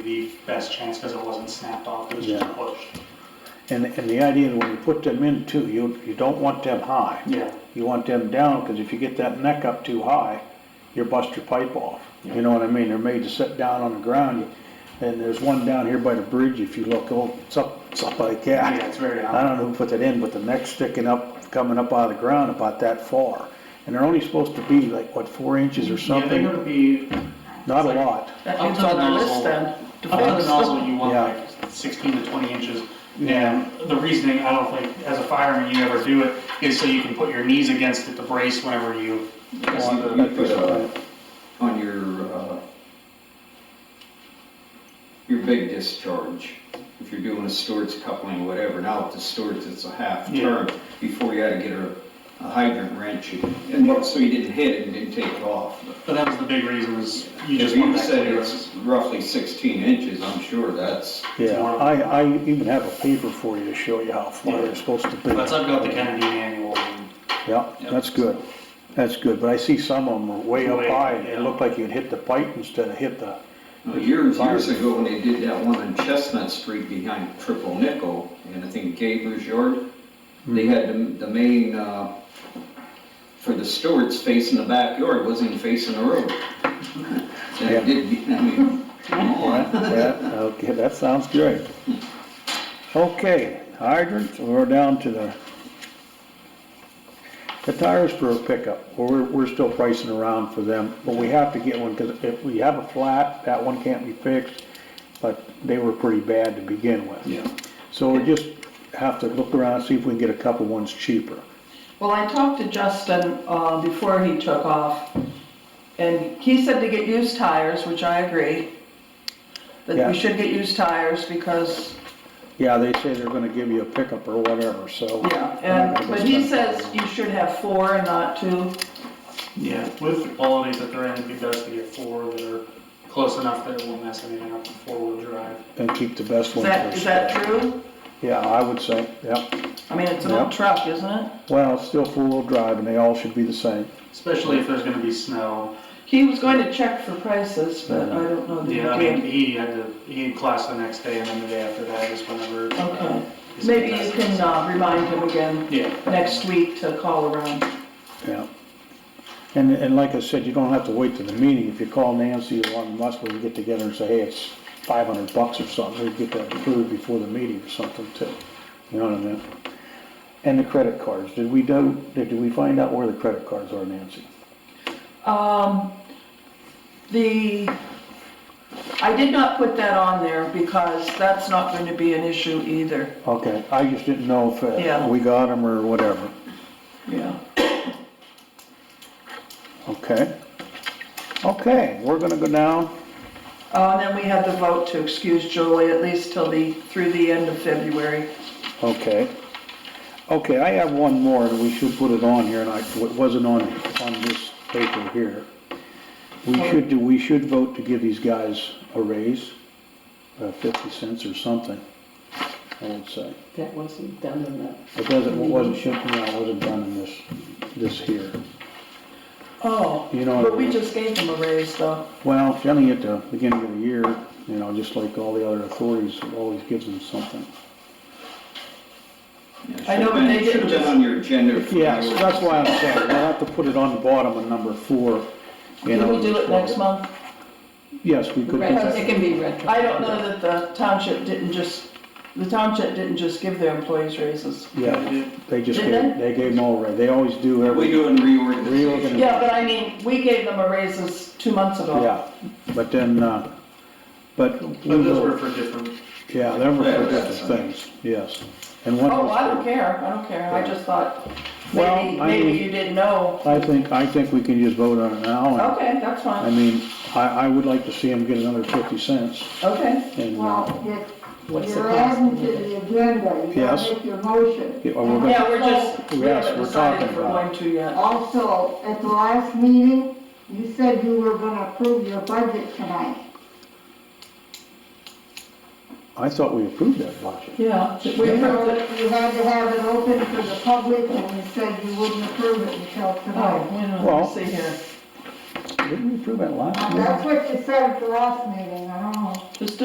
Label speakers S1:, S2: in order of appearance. S1: the best chance because it wasn't snapped off, it was just
S2: Yeah.
S1: pushed.
S2: And, and the idea is when you put them in too, you, you don't want them high.
S1: Yeah.
S2: You want them down, cause if you get that neck up too high, you bust your pipe off.
S1: Yeah.
S2: You know what I mean? They're made to sit down on the ground. And there's one down here by the bridge, if you look, oh, it's up, it's up by the cat.
S1: Yeah, it's very high.
S2: I don't know who put that in, but the neck's sticking up, coming up out of the ground about that far. And they're only supposed to be like, what, four inches or
S1: Yeah, they're
S2: something?
S1: gonna be,
S2: Not a lot.
S3: It's on the list then.
S1: Up to the nozzle, you want
S2: Yeah.
S1: like sixteen to twenty inches. And the reasoning, I don't think, as a fireman, you ever do it, is so you can put your knees against it to brace whenever you.
S4: You you put a, on your, uh, your big discharge, if you're doing a Stewart's coupling, whatever, now with the Stewart's, it's a half
S1: Yeah.
S4: turn. Before you had to get a a hydrant wrench, and and so you didn't hit it and didn't take it off. But
S1: But that was the big reason is you
S4: If
S1: just want
S4: you
S1: that
S4: said
S1: clearance.
S4: it's roughly sixteen inches, I'm sure that's,
S2: Yeah, I, I even have a paper for you to show you how far they're supposed to be.
S1: That's, I've got the Kennedy manual and
S2: Yeah, that's good, that's good, but I see some of them are way up
S1: Way,
S2: high, and it
S1: yeah.
S2: looked like you'd hit the pipe instead of hit the,
S4: Well, Years, years ago, when they did that one on Chestnut Street behind Triple Nickel, and I think Gaber's Yard, they had the, the main, uh, for the stewards facing the backyard, wasn't even facing the road. And it did, I mean, come on.
S2: yeah, okay, that sounds great. Okay, hydrants, we're down to the, the tires for a pickup, we're, we're still pricing around for them, but we have to get one, because if we have a flat, that one can't be fixed, but they were pretty bad to begin with.
S4: Yeah.
S2: So we just have to look around, and see if we can get a couple ones cheaper.
S3: Well, I talked to Justin, uh, before he took off, and he said to get used tires, which I agree. That
S2: Yeah.
S3: we should get used tires because,
S2: Yeah, they say they're gonna give you a pickup or whatever, so.
S3: yeah,
S2: I'm not
S3: and,
S2: gonna go
S3: but he
S2: spend-
S3: says you should have four and not two.
S1: Yeah, with the qualities that they're in, it'd be best to get four that are close enough that it won't mess anything up in four-wheel drive.
S2: And keep the best
S3: Is
S2: one
S3: that, is
S2: first.
S3: that true?
S2: Yeah, I would say, yeah.
S3: I mean, it's an
S2: Yeah.
S3: old truck, isn't it?
S2: Well, it's still four-wheel drive and they all should be the same.
S1: Especially if there's gonna be snow.
S3: He was going to check for prices, but I don't know that he
S1: Yeah, I mean,
S3: did.
S1: he had to, he had class the next day and then the day after that is whenever.
S3: Okay, maybe you can, uh, remind him again
S1: Yeah,
S3: next week to call around.
S2: Yeah. And, and like I said, you don't have to wait to the meeting. If you call Nancy or one of us, we can get together and say, hey, it's five hundred bucks or something. We can get that approved before the meeting or something too. You know what I mean? And the credit cards. Did we do, did we find out where the credit cards are, Nancy?
S3: Um, the, I did not put that on there because that's not going to be an issue either,
S2: Okay, I just didn't know if uh,
S3: Yeah.
S2: we got them or whatever.
S3: yeah.
S2: Okay. Okay, we're gonna go down.
S3: Uh, and then we had the vote to excuse Julie at least till the, through the end of February.
S2: Okay. Okay, I have one more that we should put it on here, and I, it wasn't on, on this paper here. We
S5: Oh.
S2: should do, we should vote to give these guys a raise, uh, fifty cents or something, I would say.
S5: That wasn't done in the
S2: It doesn't, it wasn't, shouldn't, no, it wasn't done in this, this here.
S3: Oh,
S2: You know-
S3: but we just gave them a raise though.
S2: Well, generally at the beginning of the year, you know, just like all the other authorities, it always gives them something.
S3: I know, but they
S4: Should've been- Should've been
S3: didn't.
S4: on your agenda. for
S2: Yes,
S4: your-
S2: that's why I'm saying, we'll have to put it on the bottom of number four. you
S3: Can
S2: know,
S3: we do it
S2: for-
S3: next month?
S2: Yes, we could do
S5: retro, it
S2: that.
S5: can be retro.
S3: I don't know that the township didn't just, the township didn't just give their employees raises.
S2: Yeah, they just
S3: Did
S2: gave, they gave them all right, they always do
S4: What we
S2: every,
S4: doing reorganization?
S2: Reorganization.
S3: Yeah, but I mean, we gave them a raises two months ago.
S2: yeah, but then, uh, but. we
S1: but those
S2: will-
S1: were for different,
S2: Yeah, they were
S4: Yeah,
S2: for
S4: that's
S2: different things, yes. And one
S3: Oh,
S2: was
S3: I don't
S2: for-
S3: care, I don't care, I just thought,
S2: Well,
S3: maybe,
S2: I
S3: maybe
S2: mean-
S3: you didn't know.
S2: I think, I think we can just vote on it now. and-
S3: Okay, that's
S2: I
S3: fine,
S2: mean, I, I would like to see them get another fifty cents
S3: okay.
S2: and, uh,
S6: Well, you-
S5: What's the
S6: you're
S5: cost?
S6: adding to the agenda, you
S2: Yes.
S6: gotta make your motion.
S2: Yeah, well, we're gonna-
S3: Yeah, we're just, we
S2: Yes,
S3: haven't
S2: we're
S3: decided
S2: talking
S3: if we're
S2: about
S3: going to yet.
S6: Also, at the last meeting, you said you were gonna approve your budget tonight.
S2: I thought we approved that budget.
S3: Yeah, we
S6: You
S3: approved
S6: know,
S3: it.
S6: you had to have it open for the public, and you said you wouldn't approve it until
S3: Oh,
S6: tonight.
S3: wait a minute,
S2: Well-
S3: let's see here,
S2: Didn't we approve that last
S6: Now,
S2: year?
S3: Oh. Uh,
S6: That's what you said at the last meeting, I don't know.
S3: just